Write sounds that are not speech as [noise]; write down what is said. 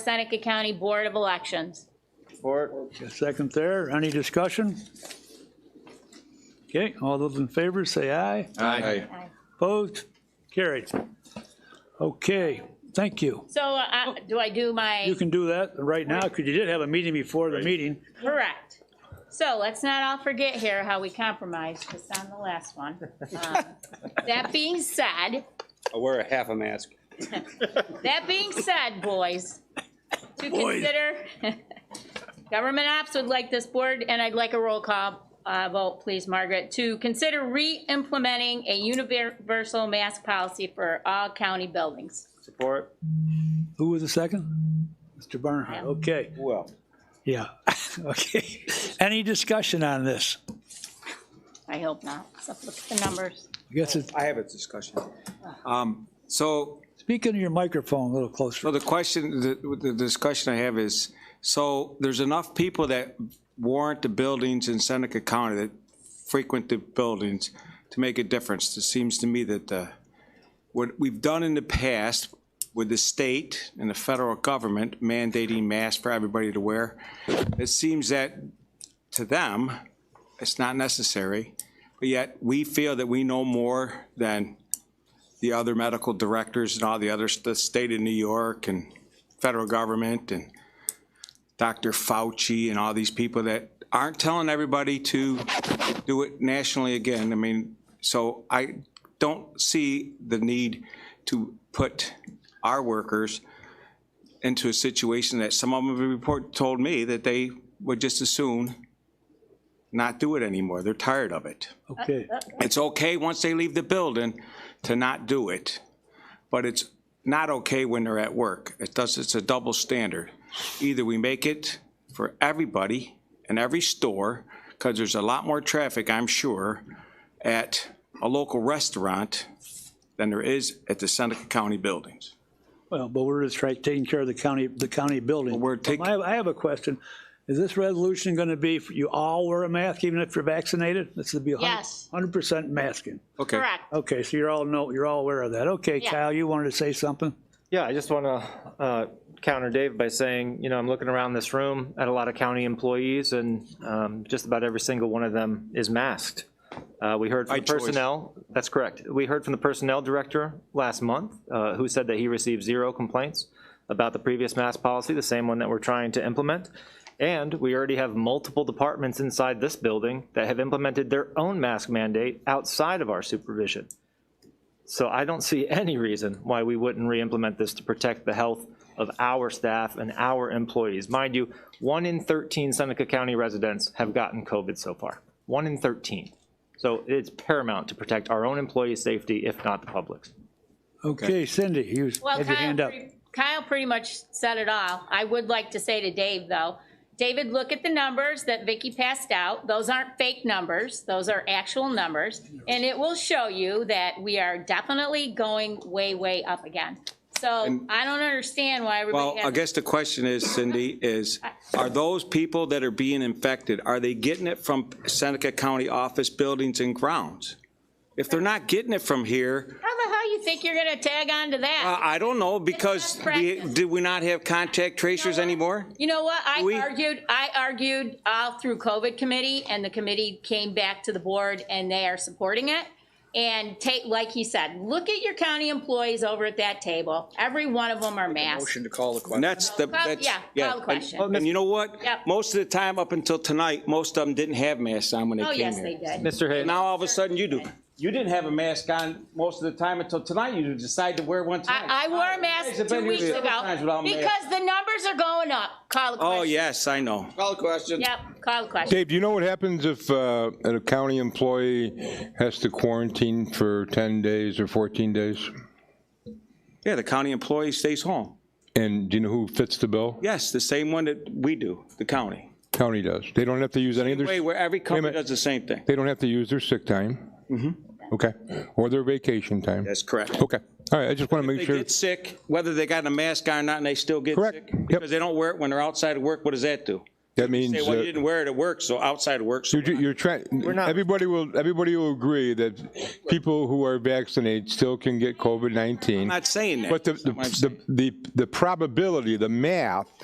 Seneca County Board of Elections. Support. A Second there, any discussion? Okay, all those in favor say aye. Aye. Opposed? Carried. Okay, thank you. So uh, do I do You my, can do that right now, because you did have a meeting before the meeting. correct? So let's not all forget here how we compromised, just on the last one. [laughs] Um, That being said, I wear a half a mask. that being said, boys, to Boys. consider, [laughs] government ops would like this board, and I'd like a roll call uh, vote, please, Margaret, to consider re-implementing a universal mask policy for all county buildings. Support. Who was the second? Mr. Barnhart, okay, Well. yeah, [laughs] okay. Any discussion on this? I hope not. So look at the numbers. I guess it's, I have a discussion. Um, So, speak into your microphone a little so closer. the question, the, the discussion I have is, so there's enough people that warrant the buildings in Seneca County that frequent the buildings to make a difference. It seems to me that the, what we've done in the past with the state and the federal government mandating masks for everybody to wear, it seems that to them, it's not necessary, but yet we feel that we know more than the other medical directors and all the others, the state of New York and federal government and Dr. Fauci and all these people that aren't telling everybody to do it nationally again. I mean, so I don't see the need to put our workers into a situation that some of them have report, told me that they would just as soon not do it anymore. They're tired of it Okay, it's okay once they leave the building to not do it, but it's not okay when they're at work. It does, it's a double standard. Either we make it for everybody in every store, because there's a lot more traffic, I'm sure, at a local restaurant than there is at the Seneca County buildings. well, but we're just trying, taking care of the county, the county building. We're taking, I have, I have a question. Is this resolution going to be, for you all wear a mask even if you're vaccinated? This would be Yes. hundred percent masking. okay. Correct. Okay, so you're all know, you're all aware of that. Okay, Yeah. Kyle, you wanted to say something? Yeah, I just want to uh, counter Dave by saying, you know, I'm looking around this room at a lot of county employees, and um, just about every single one of them is masked. Uh, We heard from By the choice. personnel, that's correct. We heard from the personnel director last month, uh, who said that he received zero complaints about the previous mask policy, the same one that we're trying to implement. And we already have multiple departments inside this building that have implemented their own mask mandate outside of our supervision. So I don't see [laughs] any reason why we wouldn't re-implement this to protect the health of our staff and our employees. Mind you, one in 13 Seneca County residents have gotten COVID so far. One in 13. So it's paramount to protect our own employees' safety, if not the public's. Okay, Cindy, you Well, had your Kyle, hand up. pre- Kyle pretty much said it all. I would like to say to Dave, though, David, look at the numbers that Vicky passed out. Those aren't fake numbers. Those are actual numbers. And it will show you that we are definitely going way, way up again. So I don't understand why Well, everybody I has, guess the question is, Cindy, is are those people that are being infected, are they getting it from Seneca County office buildings and grounds? If they're not getting it from here, how the hell you think you're gonna tag on to that? I I don't know, because It's not we- practice. did we not have contact tracers anymore? You know what? I We- argued, I argued all through COVID committee and the committee came back to the board and they are supporting it. And take, like he said, look at your county employees over at that table. Every one of them are masked. Motion to call the And question. that's the, Call- that's, yeah, yeah. call the question. And- And you know what? Yep. Most of the time, up until tonight, most of them didn't have masks on when they Oh, came here. yes, they did. Mr. Hayes? Now, all of a sudden, you do. You didn't have a mask on most of the time until tonight, you decide to wear one tonight. I, I wore a You guys mask have two been here weeks several times ago without masks. because the numbers are going up. Call the question. Oh, yes, I know. Call the question. Yep, call the question. Dave, do you know what happens if uh, a county employee has to quarantine for 10 days or 14 days? Yeah, the county employee stays home. And do you know who fits the bill? Yes, the same one that we do, the county. County does. They don't have to use any of Way their, where every company minute. does the same thing. they don't have to use their sick time? Okay, or their vacation time? That's correct. Okay, all right, I just want to They make sure. get sick, whether they got a mask on or not, and they still get sick. Correct. Yep. Because they don't wear it when they're outside of work, what does that do? That means. Say, well, you uh, didn't wear it at work, so outside work. so You're, ju- you're trying, not- everybody will, everybody will agree that people who are vaccinated still can get COVID-19. I'm not saying that. But the, the, the- the probability, the math